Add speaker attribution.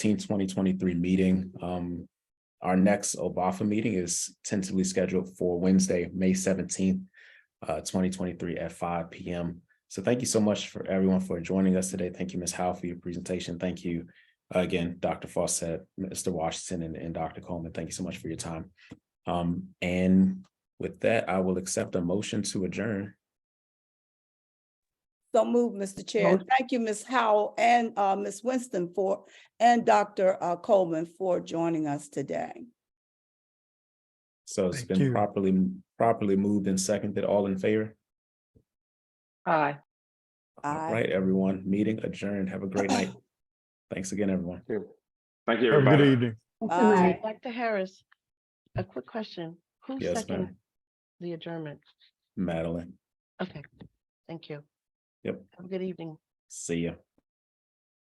Speaker 1: twenty twenty-three meeting. Um, our next OBAFA meeting is tentatively scheduled for Wednesday, May seventeenth, uh, twenty twenty-three at five P M. So thank you so much for everyone for joining us today. Thank you, Ms. Howe, for your presentation. Thank you uh, again, Dr. Fawcett, Mr. Washington, and, and Dr. Coleman. Thank you so much for your time. Um, and with that, I will accept a motion to adjourn.
Speaker 2: So move, Mr. Chair. And Thank you, Ms. Howell and uh, Ms. Winston for, and Dr. uh, Coleman for joining us today.
Speaker 1: So it's
Speaker 3: Thank
Speaker 1: been
Speaker 3: you.
Speaker 1: properly, properly moved and seconded. All in favor?
Speaker 4: Aye.
Speaker 1: All
Speaker 2: Aye.
Speaker 1: right, everyone, meeting adjourned. Have a great night. Thanks again, everyone.
Speaker 5: Thank you,
Speaker 3: Have a good
Speaker 5: everybody.
Speaker 3: evening.
Speaker 2: Aye.
Speaker 4: Dr. Harris, a quick question. Who
Speaker 1: Yes,
Speaker 4: seconded
Speaker 1: ma'am.
Speaker 4: the adjournment?
Speaker 1: Madeline,
Speaker 4: Okay, thank you.
Speaker 1: Yep.
Speaker 4: Have a good evening.
Speaker 1: see ya.